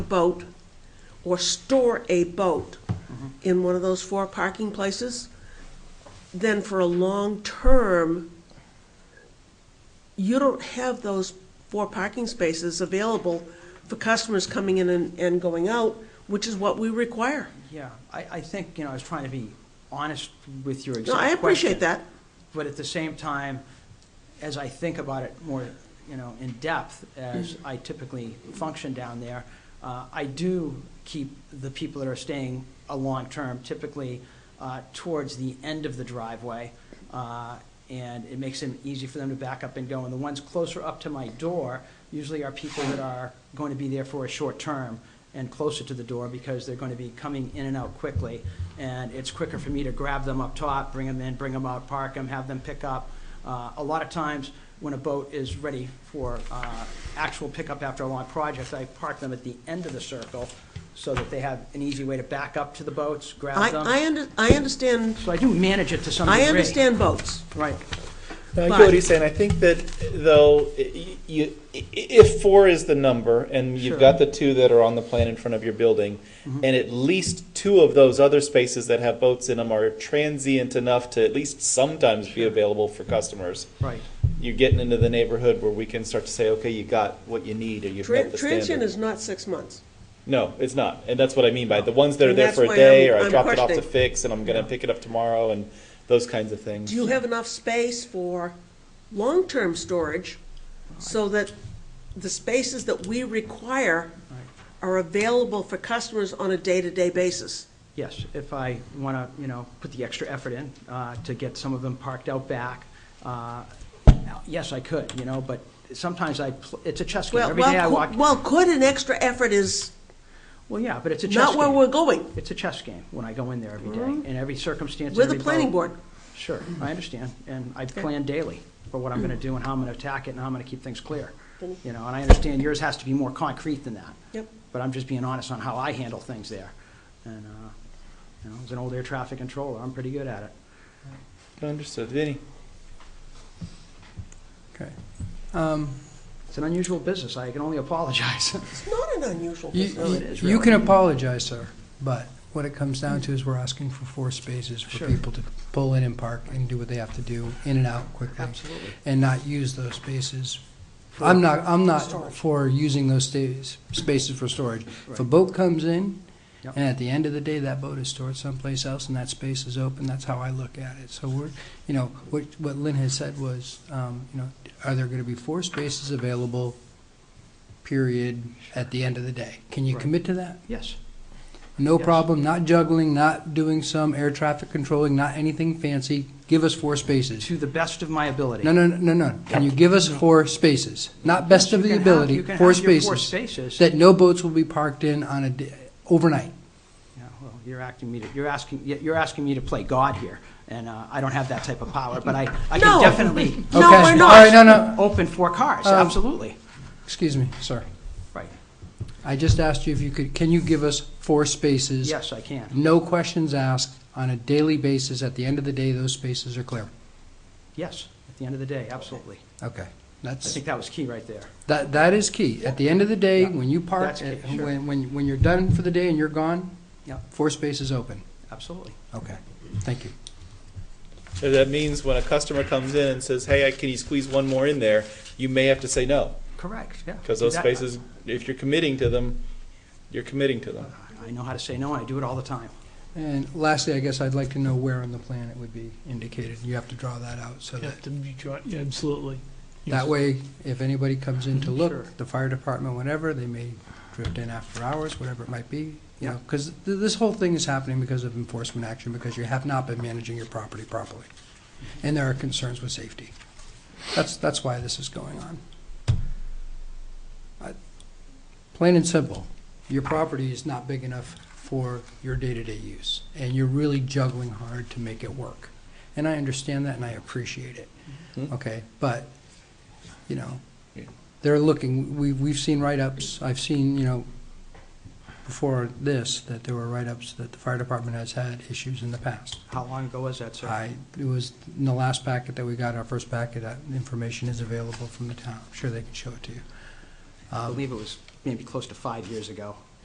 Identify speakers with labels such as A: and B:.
A: boat or store a boat in one of those four parking places, then for a long term, you don't have those four parking spaces available for customers coming in and, and going out, which is what we require.
B: Yeah, I, I think, you know, I was trying to be honest with your
A: No,
B: exact
A: I appreciate that.
B: question, But at the same time, as I think about it more, you know, in depth, as I typically function down there, uh, I do keep the people that are staying a long term typically uh, towards the end of the driveway. uh, And it makes it easy for them to back up and go. And the ones closer up to my door usually are people that are going to be there for a short term and closer to the door because they're going to be coming in and out quickly. And it's quicker for me to grab them up top, bring them in, bring them out, park them, have them pick up. Uh, A lot of times, when a boat is ready for uh, actual pickup after a long project, I park them at the end of the circle so that they have an easy way to back up to the boats, grab
A: I, I
B: them.
A: under, I understand,
B: So I do manage it to some degree.
A: I understand boats.
B: Right.
C: No, I
A: But-
C: get what he's saying. I think that though, y- you, i- if four is the number, and
B: Sure.
C: you've got the two that are on the plan in front of your building,
A: Mm-hmm.
C: and at least two of those other spaces that have boats in them are transient enough to at least sometimes be available for customers.
B: Right.
C: You're getting into the neighborhood where we can start to say, okay, you got what you need, or you've met
A: Tran-
C: the
A: Transient
C: standard.
A: is not six months.
C: No, it's not, and that's what I mean by the ones that are
A: And
C: there
A: that's
C: for
A: why
C: a day,
A: I'm-
C: or I
A: I'm
C: dropped it off to
A: questioning.
C: fix, and I'm gonna
B: Yeah.
C: pick it up tomorrow, and those kinds of things.
A: Do you have enough space for long-term storage so that the spaces that we require
B: Right.
A: are available for customers on a day-to-day basis?
B: Yes, if I want to, you know, put the extra effort in uh, to get some of them parked out back, uh, yes, I could, you know, but sometimes I, pl- it's a chess game.
A: Well,
B: Every day I
A: well,
B: walk,
A: could- well, could an extra effort is
B: well, yeah, but it's a chess
A: not
B: game.
A: where we're going.
B: It's a chess game when I go in there every day, in every circumstance.
A: We're the
B: every vote.
A: planning board.
B: Sure, I understand, and I plan daily for what I'm going to do and how I'm going to attack it and how I'm going to keep things clear. You know, and I understand yours has to be more concrete than that.
A: Yep.
B: But I'm just being honest on how I handle things there. And, uh, you know, as an old air traffic controller, I'm pretty good at it.
C: Understood, Vinny?
D: Okay. Um,
B: It's an unusual business, I can only apologize.
A: It's not an unusual
D: You
A: business.
B: No, it is,
D: you- you can apologize, sir, but what it comes down to is we're asking for four spaces for
B: Sure.
D: people to pull in and park and do what they have to do, in and out quickly, and not use those spaces. I'm not, I'm not for using those sta- spaces for storage. If a
B: Right.
D: boat comes in,
B: Yep.
D: and at the end of the day, that boat is stored someplace else, and that space is open, that's how I look at it. So we're, you know, what, what Lynn has said was, um, you know, are there gonna be four spaces available, period, at the end of the day? Can you
B: Right.
D: commit to that?
B: Yes,
D: No
B: Yes.
D: problem, not juggling, not doing some air traffic controlling, not anything fancy. Give us four spaces.
B: to the best of my ability.
D: No, no, no, no. Can you give us four spaces? Not best
B: You
D: of the
B: can have-
D: ability,
B: you can
D: four
B: have your Four
D: spaces.
B: spaces.
D: That no boats will be parked in on a, d- overnight.
B: Yeah, well, you're acting me to, you're asking, you're asking me to play God here, and uh, I don't have that type of power, but I, I
A: No.
B: can definitely
A: No,
D: Okay.
A: we're
D: All right,
A: not.
D: no, no,
B: open four cars,
D: Um,
B: absolutely.
D: excuse me, sir.
B: Right,
D: I just asked you if you could, can you give us four spaces?
B: yes, I can,
D: No questions asked, on a daily basis, at the end of the day, those spaces are clear.
B: yes, at the end of the day, absolutely.
D: Okay.
B: I
D: That's,
B: think that was key right there.
D: that, that is key. At the end of the day,
B: Yeah.
D: when you
B: That's
D: park,
B: key,
D: uh,
B: sure.
D: when, when, when you're done for the day and you're gone,
B: Yeah,
D: four spaces open.
B: absolutely.
D: Okay, thank you.
C: So That means when a customer comes in and says, hey, I- can you squeeze one more in there? You may have to say no,
B: Correct, yeah.
C: because those
B: That-
C: spaces, if you're committing to them, you're committing to them.
B: I know how to say no, and I do it all the time.
D: And lastly, I guess I'd like to know where on the plan it would be indicated. You have to draw that out so
E: Yeah,
D: that,
E: to be dri- yeah, absolutely.
D: that way, if anybody comes in to
B: Sure.
D: look, the fire department, whatever, they may drift in after hours, whatever it might be. You know, because th- this whole thing is happening because of enforcement action, because you have not been managing your property properly. And there are concerns with safety. That's, that's why this is going on. I- Plain and simple, your property is not big enough for your day-to-day use, and you're really juggling hard to make it work. And I understand that, and I appreciate it,
C: Mhm.
D: okay? But, you know,
C: Yeah.
D: they're looking, we, we've seen write-ups, I've seen, you know, before this, that there were write-ups that the fire department has had issues in the past.
B: How long ago was that, sir?
D: I, it was in the last packet that we got, our first packet, that information is available from the town. I'm sure they can show it to you.
B: I
D: Um,
B: believe it was maybe close to five years ago.